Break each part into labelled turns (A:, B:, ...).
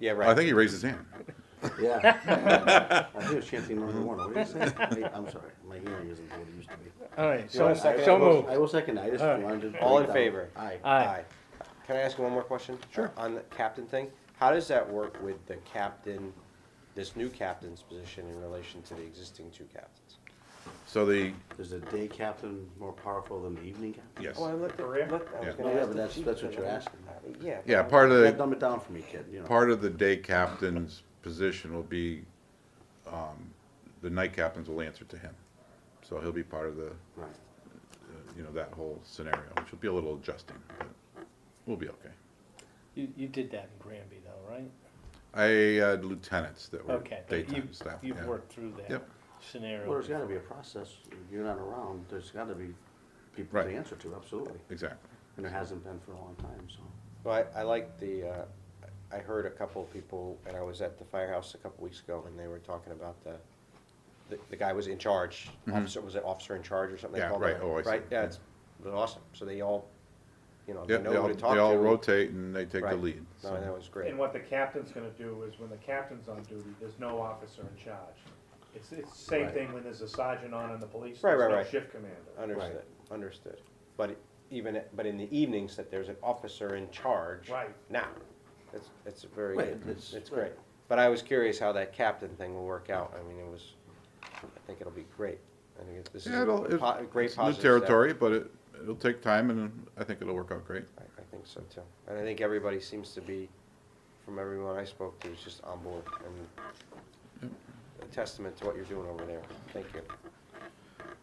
A: Yeah, right.
B: I think he raised his hand.
C: Yeah. I hear chanting number one, what are you saying? Wait, I'm sorry, my hearing isn't what it used to be.
D: All right,
A: You
D: so,
A: want a second?
D: so
C: I will-
D: moved.
C: I will second, I just
D: All right.
C: wanted to.
A: All in
C: break down.
A: favor?
C: Aye.
D: Aye.
A: Can I ask one more question? Sure. On the captain thing, how does that work with the captain, this new captain's position in relation to the existing two captains?
B: So the,
C: Is the day captain more powerful than the evening captain?
B: yes.
A: let the,
E: Maria?
B: Yeah.
C: No, Oh, yeah, but that's, that's what you're asking.
A: Yeah.
B: Yeah, part of
C: Yeah,
B: the,
C: dumb it down for me, kid, you know.
B: part of the day captain's position will be, um, the night captains will answer to him. So he'll be part of the,
C: Right.
B: uh, you know, that whole scenario, which will be a little adjusting, but we'll be okay.
D: You, you did that in Granby though, right?
B: I uh, had lieutenants that were
D: Okay, but you,
B: daytime staff.
D: you've
B: yeah.
D: worked through that
B: Yep.
D: scenario.
C: Well, there's gotta be a process, If you're not around, there's gotta be people to
B: Right.
C: answer to, absolutely,
B: Exactly.
C: and there hasn't been for a long time, so.
A: Well, I, I like the, uh, I heard a couple of people, and I was at the firehouse a couple weeks ago, and they were talking about the, the, the guy was in charge, officer, was it officer in charge or something? they
B: Mm-hmm. Yeah,
A: called it?
B: right. Oh, I see.
A: Right, yeah, it's, it was awesome, so they all, you know,
B: Yeah,
A: they
B: they
A: know
B: all,
A: who to talk
B: they
A: to.
B: all rotate and they take the
A: Right.
B: lead.
A: No, that
B: so.
A: was great.
E: And what the captain's gonna do is when the captain's on duty, there's no officer in charge. It's, it's the same
C: Right.
E: thing when there's a sergeant on in the police,
A: Right,
E: there's
A: right,
E: no
A: right.
E: shift commander.
A: Understood, understood. But even, but in the evenings, that there's an officer in charge.
E: Right.
A: Now, it's, it's a very,
C: Right,
A: good-
C: it's-
A: it's great. But I was curious how that captain thing will work out. I mean, it was, I think it'll be great. I think this is
B: Yeah,
A: a
B: it'll, it-
A: po- great
B: it's new
A: positive step.
B: territory, but it, it'll take time and I think it'll work out great.
A: I, I think so too. And I think everybody seems to be, from everyone I spoke to, is just on board and
B: Mm-hmm.
A: a testament to what you're doing over there. Thank you.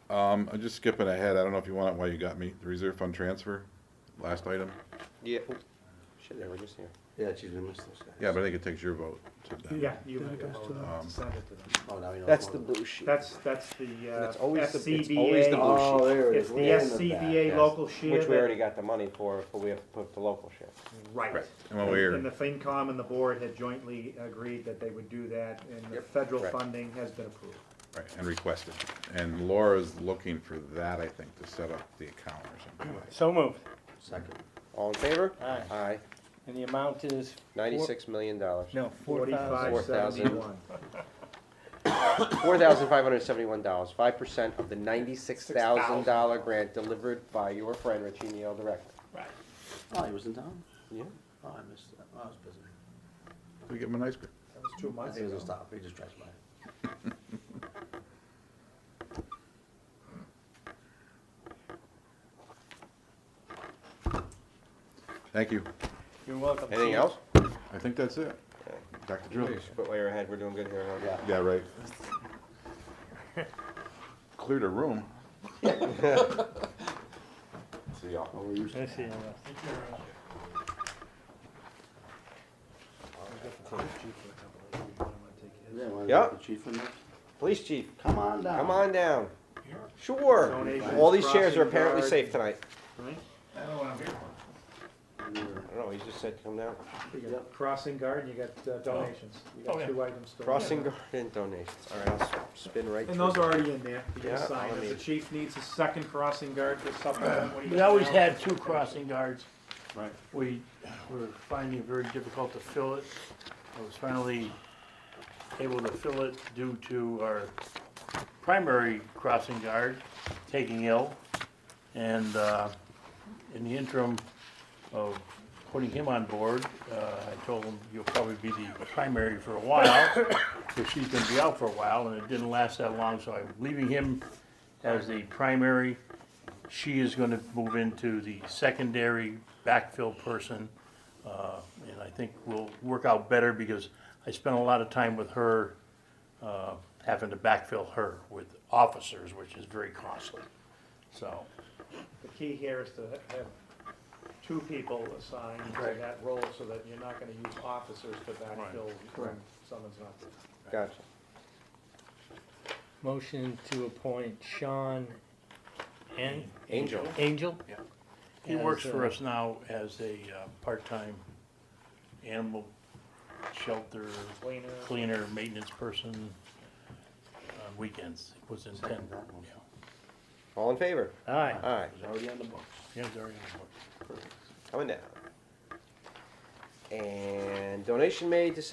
B: Um, I'm just skipping ahead. I don't know if you want it while you got me. The reserve fund transfer, last item.
A: Yeah, oh, shit, they were just here.
C: Yeah, geez, we missed those guys.
B: Yeah, but I think it takes your vote to that.
E: Yeah, you have to send it to them.
C: Oh, now we know.
A: That's
C: more
A: the
C: than-
A: blue sheet.
E: That's, that's the, uh,
A: It's always the- it's always the
E: SCBA,
A: blue
C: Oh, there it is.
E: it's the
C: Way in back,
E: SCBA
C: yes.
E: local share.
A: Which we
E: that-
A: already got the money for, but we have to put the local share.
E: Right.
B: Correct. And when we're-
E: And the FinCom and the board had jointly agreed that they would do that, and the
A: Yep.
E: federal
A: Correct.
E: funding has been approved.
B: Right, and requested. And Laura's looking for that, I think, to set up the account or something.
D: So moved,
C: Second.
A: All in favor?
D: Aye.
A: Aye.
D: and the amount is? four-
A: Ninety-six million dollars.
D: No, four thousand.
E: Forty-five
A: 4,000.
E: seventy-one.
A: Four thousand five hundred seventy-one dollars, five percent of the ninety-six thousand dollar grant delivered by your friend Richie Neal directly.
C: Oh, he was in town?
A: Yeah.
C: Oh, I missed that. Oh, I was busy.
B: We give them an ice cream.
E: That was two
C: I
E: months
C: think it was
E: ago.
C: a stop. He just drives by.
B: Thank you.
D: You're welcome.
A: Anything else?
B: I think that's it. Dr.
A: We
B: Drills.
A: should Put way you're ahead, we're doing good here. huh?
B: Yeah,
C: Yeah.
B: right. Cleared a room.
A: See y'all.
C: Oh, were you?
D: Let's see, uh,
C: Yeah. wanna
A: Yeah.
C: get the chief in there?
A: Police chief,
C: Come on down.
A: come on down. Sure.
E: Donations,
A: All these shares are
E: crossing
A: apparently
E: guard.
A: safe tonight.
C: You're-
A: I don't know, he just said come down.
E: You got Crossing guard, and you got uh, donations. You got two items still.
A: Crossing guard and donations. All right, I'll s- spin right through.
E: And those are already in there. You
A: Yeah,
E: just sign.
A: I
E: If the
A: mean-
E: chief needs a second crossing guard to supplement what he.
F: We always had two crossing guards.
C: Right.
F: We were finding it very difficult to fill it. I was finally able to fill it due to our primary crossing guard taking ill. And uh, in the interim of putting him on board, uh, I told him, you'll probably be the primary for a while, because she's gonna be out for a while, and it didn't last that long, so I'm leaving him as the primary. She is gonna move into the secondary backfill person, uh, and I think will work out better, because I spent a lot of time with her, uh, having to backfill her with officers, which is very costly, so.
E: The key here is to ha- have two people assigned to
F: Right.
E: that role so that you're not gonna use officers to backfill when someone's not there.
A: Gotcha.
D: Motion to appoint Sean and?
A: Angel.
D: Angel?
F: Yeah. He
D: As,
F: works for
D: uh,
F: us now as a uh, part-time animal shelter
E: Cleaner.
F: cleaner, maintenance person on weekends, It was intended.
C: Second that one.
A: All in favor?
D: uh, Aye.
A: Aye.
C: He's already on the books.
F: Yeah, it's already on the books.
A: Coming down. And donation made to